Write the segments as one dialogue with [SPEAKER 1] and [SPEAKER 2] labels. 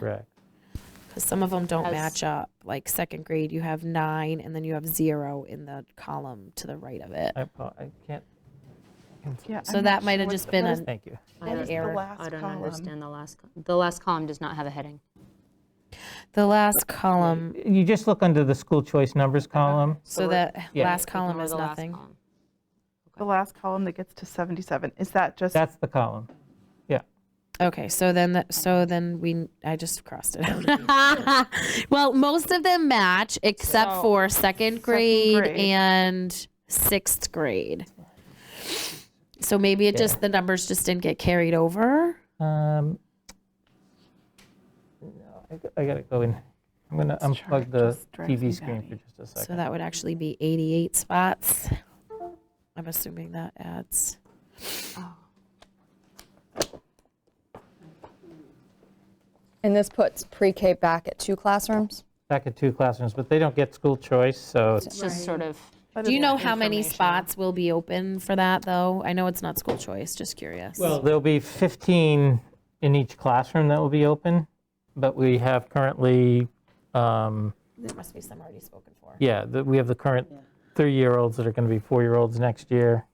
[SPEAKER 1] Correct.
[SPEAKER 2] because some of them don't
[SPEAKER 3] As-
[SPEAKER 2] match up. Like second grade, you have nine, and then you have zero in the column to the right of it.
[SPEAKER 1] I, apo- I can't,
[SPEAKER 4] Yeah,
[SPEAKER 2] So
[SPEAKER 4] I'm
[SPEAKER 2] that
[SPEAKER 4] not
[SPEAKER 2] might
[SPEAKER 4] sure
[SPEAKER 2] have
[SPEAKER 4] what
[SPEAKER 2] just
[SPEAKER 4] the-
[SPEAKER 2] been
[SPEAKER 4] what
[SPEAKER 2] an
[SPEAKER 4] is-
[SPEAKER 1] thank you.
[SPEAKER 3] I
[SPEAKER 2] an
[SPEAKER 3] don't-
[SPEAKER 2] error.
[SPEAKER 3] I
[SPEAKER 4] last
[SPEAKER 3] don't
[SPEAKER 4] column.
[SPEAKER 3] understand the last, col- the last column does not have a heading.
[SPEAKER 2] The last column,
[SPEAKER 1] You just look under the school choice numbers column.
[SPEAKER 2] so
[SPEAKER 3] we're-
[SPEAKER 2] that
[SPEAKER 1] Yeah.
[SPEAKER 2] last
[SPEAKER 3] Click on
[SPEAKER 2] column
[SPEAKER 3] the
[SPEAKER 2] is
[SPEAKER 3] last
[SPEAKER 2] nothing.
[SPEAKER 3] column.
[SPEAKER 4] The last column that gets to 77, is that just,
[SPEAKER 1] That's the column.
[SPEAKER 2] Okay, so then, the- so then we, I just crossed it out. Well, most of them match except
[SPEAKER 4] So-
[SPEAKER 2] for second grade
[SPEAKER 4] grade.
[SPEAKER 2] and sixth grade. So maybe it just, the numbers just didn't get carried over?
[SPEAKER 1] Um, no, I g- I gotta go in. I'm gonna
[SPEAKER 4] This chart
[SPEAKER 1] unplug the
[SPEAKER 4] just drives me
[SPEAKER 1] TV screen for
[SPEAKER 4] batty.
[SPEAKER 1] just a
[SPEAKER 2] So
[SPEAKER 1] second.
[SPEAKER 2] that would actually be 88 spots. I'm assuming that adds.
[SPEAKER 5] And this puts pre-K back at two classrooms?
[SPEAKER 1] Back at two classrooms, but they don't get school choice, so it's-
[SPEAKER 3] It's just sort of,
[SPEAKER 4] but
[SPEAKER 2] Do you
[SPEAKER 4] it's-
[SPEAKER 2] know how many
[SPEAKER 3] information.
[SPEAKER 2] spots will be open for that, though? I know it's not school choice, just curious.
[SPEAKER 1] there'll be 15 in each classroom that will be open, but we have currently, um,
[SPEAKER 2] There must be some already spoken for.
[SPEAKER 1] yeah, the- we have the current three-year-olds that are gonna be four-year-olds next year.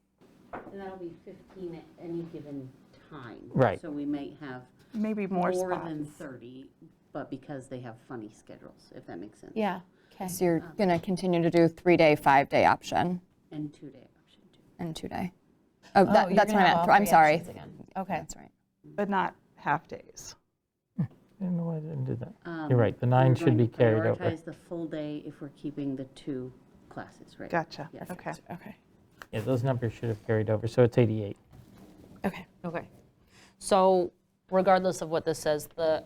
[SPEAKER 6] And that'll be 15 at any given time.
[SPEAKER 1] Right.
[SPEAKER 6] So we might have
[SPEAKER 4] Maybe more
[SPEAKER 6] more than
[SPEAKER 4] spots.
[SPEAKER 6] 30, but because they have funny schedules, if that makes sense.
[SPEAKER 2] Yeah. Okay.
[SPEAKER 5] So you're going to continue to do three-day, five-day option
[SPEAKER 6] And two-day option, too.
[SPEAKER 5] and two-day? Oh, that- that's what I meant, I'm sorry. Okay. That's right.
[SPEAKER 4] But not half-days.
[SPEAKER 1] I don't know why I didn't do that.
[SPEAKER 6] Um,
[SPEAKER 1] You're right, the nine
[SPEAKER 6] we're
[SPEAKER 1] should be
[SPEAKER 6] going to
[SPEAKER 1] carried over.
[SPEAKER 6] Prioritize the full day if we're keeping the two classes, right?
[SPEAKER 4] Gotcha,
[SPEAKER 6] Yes.
[SPEAKER 4] okay.
[SPEAKER 2] Okay.
[SPEAKER 1] Yeah, those numbers should have carried over, so it's 88.
[SPEAKER 2] Okay.
[SPEAKER 3] okay. So regardless of what this says, the,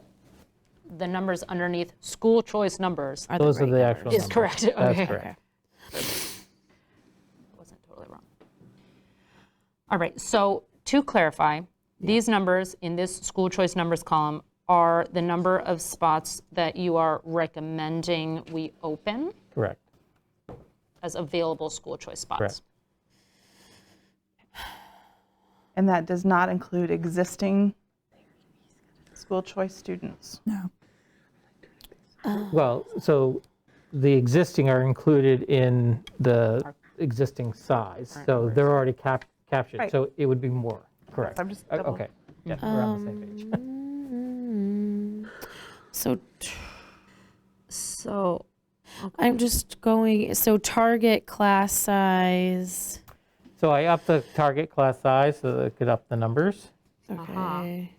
[SPEAKER 3] the numbers underneath, school choice numbers
[SPEAKER 2] Are
[SPEAKER 1] Those are
[SPEAKER 2] right
[SPEAKER 1] the
[SPEAKER 2] numbers?
[SPEAKER 1] actual numbers.
[SPEAKER 3] is correct. Okay.
[SPEAKER 1] That's correct.
[SPEAKER 3] wasn't totally wrong. All right, so to clarify, these numbers in this school choice numbers column are the number of spots that you are recommending we open
[SPEAKER 1] Correct.
[SPEAKER 3] as available school choice
[SPEAKER 1] Correct.
[SPEAKER 3] spots.
[SPEAKER 4] And that does not include existing school choice students?
[SPEAKER 1] Well, so the existing are included in the existing size, so they're already cap- captured,
[SPEAKER 4] Right.
[SPEAKER 1] so it would be more, correct?
[SPEAKER 4] I'm just
[SPEAKER 1] O-
[SPEAKER 4] double-
[SPEAKER 1] Okay, yeah, we're on the same
[SPEAKER 2] Um,
[SPEAKER 1] page.
[SPEAKER 2] Mm-hmm. So t-
[SPEAKER 3] So,
[SPEAKER 2] I'm just going, so target class size.
[SPEAKER 1] So I upped the target class size so that it could up the numbers.
[SPEAKER 2] Okay.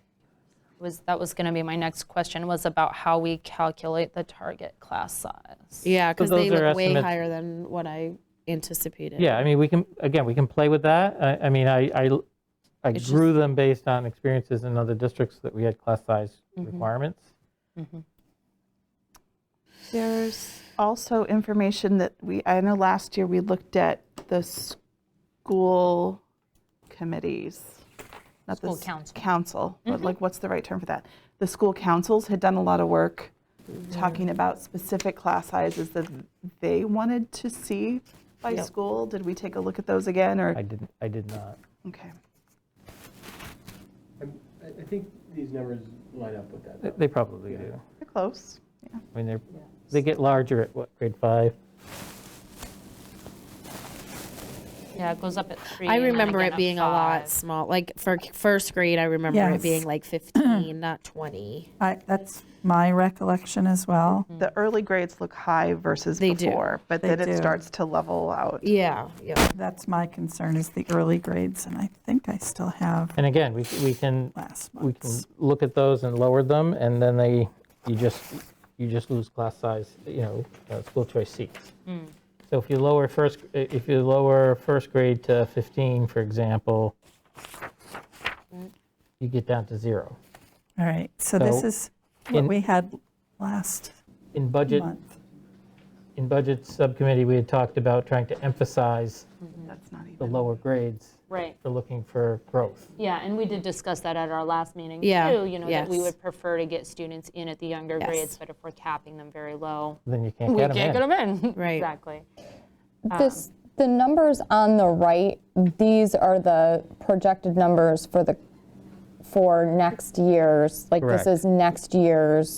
[SPEAKER 3] was, that was going to be my next question, was about how we calculate the target class size.
[SPEAKER 2] Yeah, because they
[SPEAKER 1] those are
[SPEAKER 2] look way
[SPEAKER 1] estimates.
[SPEAKER 2] higher than what I anticipated.
[SPEAKER 1] Yeah, I mean, we can, again, we can play with that. I, I mean, I, I l- I
[SPEAKER 2] It's
[SPEAKER 1] grew them based on experiences in other districts that we had class size requirements.
[SPEAKER 4] There's also information that we, I know last year we looked at the school committees. not the
[SPEAKER 3] School
[SPEAKER 4] s-
[SPEAKER 3] council.
[SPEAKER 4] Council, but like, what's the right term for that? The school councils had done a lot of work talking about specific class sizes that they wanted to see by school. Did we take a look at those again,
[SPEAKER 1] I
[SPEAKER 4] or?
[SPEAKER 1] didn't, I did not.
[SPEAKER 4] Okay.
[SPEAKER 7] I'm- I I think these numbers line up with that.
[SPEAKER 1] They- They probably do.
[SPEAKER 4] They're close. Yeah.
[SPEAKER 1] I mean, they're, they get larger at what, grade five?
[SPEAKER 3] Yeah, it goes up at three.
[SPEAKER 2] I
[SPEAKER 3] and then
[SPEAKER 2] remember
[SPEAKER 3] again
[SPEAKER 2] it
[SPEAKER 3] at
[SPEAKER 2] being a
[SPEAKER 3] five.
[SPEAKER 2] lot small. Like for k- first grade, I remember it
[SPEAKER 8] Yes.
[SPEAKER 2] being like 15, not 20.
[SPEAKER 8] I, that's my recollection as well.
[SPEAKER 4] The early grades look high versus
[SPEAKER 2] They do.
[SPEAKER 4] before, but
[SPEAKER 8] They
[SPEAKER 4] then it
[SPEAKER 8] do.
[SPEAKER 4] starts to level out.
[SPEAKER 2] Yeah. Yeah.
[SPEAKER 8] That's my concern is the early grades, and I think I still have
[SPEAKER 1] And again, we, we can,
[SPEAKER 8] last
[SPEAKER 1] we can
[SPEAKER 8] month's.
[SPEAKER 1] look at those and lower them, and then they, you just, you just lose class size, you know, uh, school choice seats.
[SPEAKER 3] Mm.
[SPEAKER 1] So if you lower first, if you lower first grade to 15, for example, you get down to zero.
[SPEAKER 8] All right, so this
[SPEAKER 1] So,
[SPEAKER 8] is what
[SPEAKER 1] in-
[SPEAKER 8] we had last
[SPEAKER 1] In budget,
[SPEAKER 8] month.
[SPEAKER 1] in budget subcommittee, we had talked about trying to emphasize
[SPEAKER 3] Mm-hmm.
[SPEAKER 4] That's not even.
[SPEAKER 1] the lower grades
[SPEAKER 3] Right.
[SPEAKER 1] for looking for growth.
[SPEAKER 3] Yeah, and we did discuss that at our last meeting too.
[SPEAKER 2] Yeah,
[SPEAKER 3] You know, that we
[SPEAKER 2] yes.
[SPEAKER 3] would prefer to get students in at the younger
[SPEAKER 2] Yes.
[SPEAKER 3] grades, but if we're capping them very low,
[SPEAKER 1] Then you can't
[SPEAKER 3] we
[SPEAKER 1] get
[SPEAKER 3] can't
[SPEAKER 1] them
[SPEAKER 3] get
[SPEAKER 1] in.
[SPEAKER 3] them in.
[SPEAKER 2] Right.
[SPEAKER 3] Exactly.
[SPEAKER 5] This, the numbers on the right, these are the projected numbers for the, for next year's, like
[SPEAKER 1] Correct.
[SPEAKER 5] this is next year's